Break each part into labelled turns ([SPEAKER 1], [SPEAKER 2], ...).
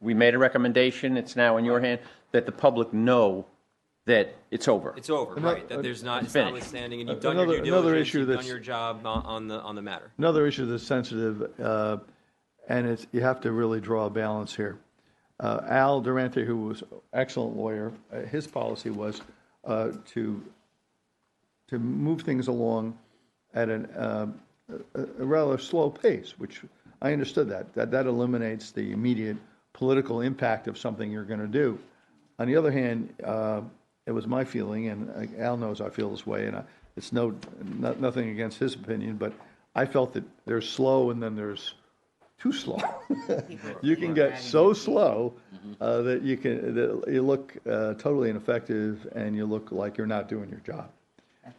[SPEAKER 1] we made a recommendation, it's now in your hand, that the public know that it's over.
[SPEAKER 2] It's over, right? That there's not, it's not
[SPEAKER 1] Finished.
[SPEAKER 2] withstanding, and you've done your
[SPEAKER 3] Another-
[SPEAKER 2] due
[SPEAKER 3] another
[SPEAKER 2] diligence,
[SPEAKER 3] issue
[SPEAKER 2] you've done
[SPEAKER 3] that's-
[SPEAKER 2] your job on- on the, on the matter.
[SPEAKER 3] Another issue that's sensitive, uh, and it's, you have to really draw a balance here. Uh, Al Durante, who was excellent lawyer, uh, his policy was uh, to, to move things along at an, uh, a a rather slow pace, which I understood that. That, that eliminates the immediate political impact of something you're going to do. On the other hand, uh, it was my feeling, and uh, Al knows I feel this way, and I, it's no, no, nothing against his opinion, but I felt that there's slow and then there's too slow. you can get so slow uh, that you can that you look uh, totally ineffective and you look like you're not doing your job.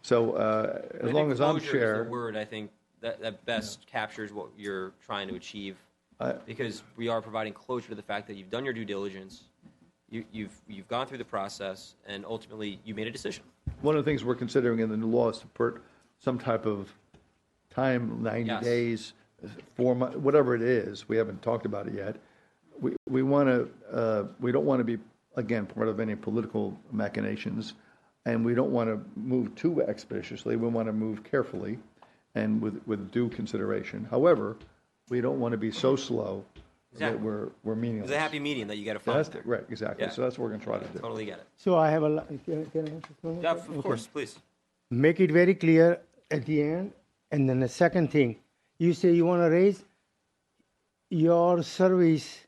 [SPEAKER 3] So uh, as
[SPEAKER 2] I
[SPEAKER 3] long
[SPEAKER 2] think
[SPEAKER 3] as I'm
[SPEAKER 2] closure is
[SPEAKER 3] chair,
[SPEAKER 2] the word I think that, that best captures what you're trying to achieve, because we are providing closure to the fact that you've done your due diligence, you, you've you've gone through the process, and ultimately you made a decision.
[SPEAKER 3] one of the things we're considering in the new law is to put some type of time, 90
[SPEAKER 2] Yes.
[SPEAKER 3] days, four months, whatever it is. We haven't talked about it yet. We, we want to, uh, we don't want to be, again, part of any political machinations, and we don't want to move too expeditiously. We want to move carefully and with, with due consideration. However, we don't want to be so slow that
[SPEAKER 2] Exactly.
[SPEAKER 3] we're, we're meaningless.
[SPEAKER 2] It's a happy medium that you got to find.
[SPEAKER 3] That's, the- right, exactly.
[SPEAKER 2] Yeah.
[SPEAKER 3] So that's what we're going to try to do.
[SPEAKER 2] Totally get it.
[SPEAKER 4] So I have a, li- can I- can I answer something?
[SPEAKER 2] Yeah, of
[SPEAKER 4] Okay.
[SPEAKER 2] course, please.
[SPEAKER 4] Make it very clear at the end. And then the second thing, you say you want to raise, your service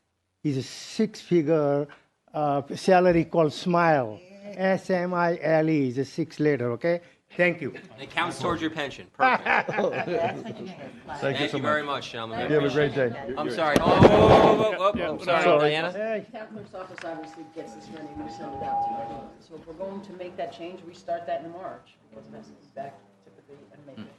[SPEAKER 4] is a six-figure uh, salary called SMILE. S-M-I-L-E E is a six letter, okay? Thank you.
[SPEAKER 2] And it counts towards your pension. Perfect.
[SPEAKER 3] Thank you
[SPEAKER 2] Thank
[SPEAKER 3] so
[SPEAKER 2] you
[SPEAKER 3] much.
[SPEAKER 2] very much, gentlemen. I
[SPEAKER 3] You have a
[SPEAKER 2] appreciate
[SPEAKER 3] great day.
[SPEAKER 2] it. I'm sorry. Oh, whoa, whoa, whoa, whoa, whoa, I'm sorry,
[SPEAKER 3] sorry.
[SPEAKER 2] Diana.
[SPEAKER 4] Hey.
[SPEAKER 5] Town clerk's office obviously gets this money, we send it out to everyone. So if we're going to make that change, we start that in March, because it has to be back typically on May fifteenth.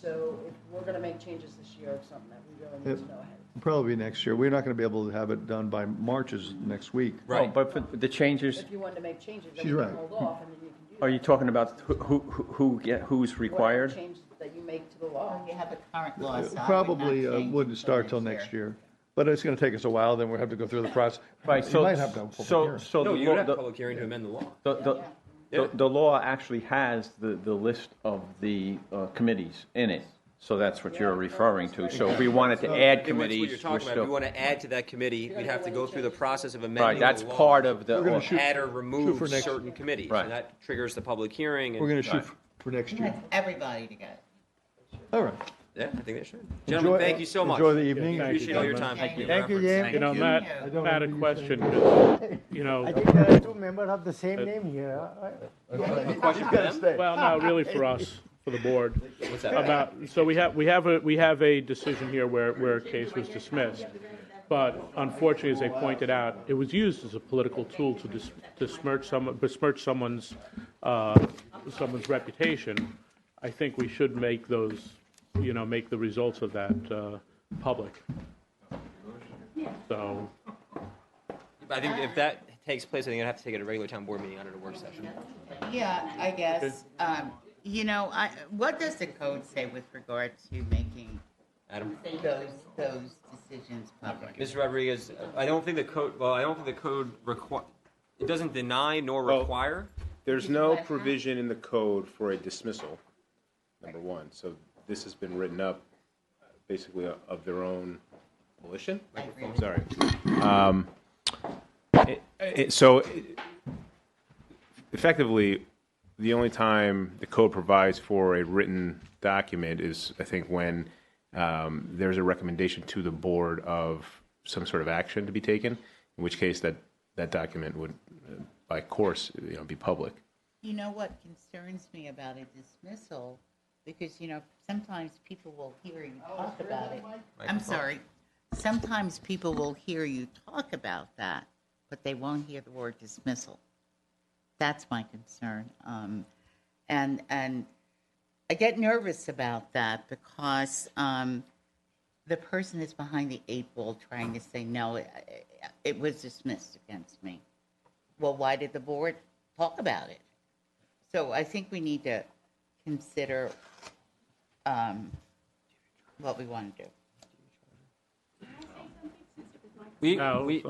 [SPEAKER 5] So if we're gonna make changes this year, it's something that we really need to know ahead.
[SPEAKER 3] Probably next year. We're not going to be able to have it done by March is next week.
[SPEAKER 1] Right. But for the changes,
[SPEAKER 5] If you wanted to make changes, then
[SPEAKER 3] She's
[SPEAKER 5] we
[SPEAKER 3] right.
[SPEAKER 5] can hold off, and then you can do that.
[SPEAKER 1] are you talking about who, who, who, get- who's
[SPEAKER 5] Whatever
[SPEAKER 1] required?
[SPEAKER 5] change that you make to the law.
[SPEAKER 6] You have the current law, so I would not
[SPEAKER 3] Probably uh,
[SPEAKER 6] change it
[SPEAKER 3] wouldn't start till next year. But it's going to take us a while, then we'll have to go through the process.
[SPEAKER 1] Right,
[SPEAKER 3] You
[SPEAKER 1] so,
[SPEAKER 3] might have to have a public
[SPEAKER 1] so,
[SPEAKER 3] hearing.
[SPEAKER 1] so.
[SPEAKER 2] No,
[SPEAKER 1] the
[SPEAKER 2] you
[SPEAKER 1] law-
[SPEAKER 2] would have
[SPEAKER 1] the-
[SPEAKER 2] a public hearing to amend the law.
[SPEAKER 1] The, the, the, the law actually has the, the list of the uh, committees in it, so that's what you're referring to. So if we wanted to add
[SPEAKER 2] It was what you're
[SPEAKER 1] committees, we're
[SPEAKER 2] talking about. If we
[SPEAKER 1] still,
[SPEAKER 2] want to add to that committee, we'd have to go through the process of amending
[SPEAKER 1] right,
[SPEAKER 2] the
[SPEAKER 1] that's
[SPEAKER 2] law.
[SPEAKER 1] part of the.
[SPEAKER 3] We're gonna
[SPEAKER 1] or-
[SPEAKER 3] shoot-
[SPEAKER 2] Add or remove
[SPEAKER 3] for next-
[SPEAKER 2] certain committees,
[SPEAKER 1] Right.
[SPEAKER 2] and that triggers the public hearing.
[SPEAKER 3] We're
[SPEAKER 2] And,
[SPEAKER 3] going to shoot for next year.
[SPEAKER 6] That's everybody to go.
[SPEAKER 3] All right.
[SPEAKER 2] yeah, I think they should. Gentlemen,
[SPEAKER 3] Enjoy-
[SPEAKER 2] thank you so much.
[SPEAKER 3] enjoy the evening. Thank you,
[SPEAKER 2] Appreciate all your
[SPEAKER 3] gentlemen.
[SPEAKER 2] time. Thank you.
[SPEAKER 4] Thank you, James.
[SPEAKER 7] You know, Matt, Matt, a question, 'cause, you
[SPEAKER 4] I
[SPEAKER 7] know,
[SPEAKER 4] think there are two members of the same
[SPEAKER 3] Uh,
[SPEAKER 4] name here. huh?
[SPEAKER 7] well, no, really for us, for the board.
[SPEAKER 2] What's that?
[SPEAKER 7] About, so we have, we have, a we have a decision here where, where a case was dismissed. But unfortunately, as they pointed out, it was used as a political tool to dis- besmirch someone, besmirch someone's, uh, someone's reputation. I think we should make those, you know, make the results of that, uh, public. So,
[SPEAKER 2] I think if that takes place, I think I'd have to take it at a regular town board meeting, not at a work session.
[SPEAKER 6] Yeah, I guess, um, you know, I, what does the code say with regard to making
[SPEAKER 2] Adam,
[SPEAKER 6] those, those decisions public?
[SPEAKER 2] Ms. Rodriguez, I don't think the code. Well, I don't think the code require. It doesn't deny nor
[SPEAKER 8] Well-
[SPEAKER 2] require.
[SPEAKER 8] There's no provision in the code for a dismissal, number one. So this has been written up uh, basically o- of their own volition. I'm sorry. Um, it- it- So it- effectively, the only time the code provides for a written document is, I think, when um, there's a recommendation to the board of some sort of action to be taken, in which case that, that document would, uh, by course, you know, be public.
[SPEAKER 6] You know what concerns me about a dismissal? Because, you know, sometimes people will hear you talk about it. I'm sorry. Sometimes people will hear you talk about that, but they won't hear the word dismissal. That's my concern. Um, and, and I get nervous about that because, um, the person is behind the eight ball trying to say, no, it, it was dismissed against me. Well, why did the board talk about it? So I think we need to consider um, what we want to do.
[SPEAKER 2] We,
[SPEAKER 7] No,
[SPEAKER 2] we,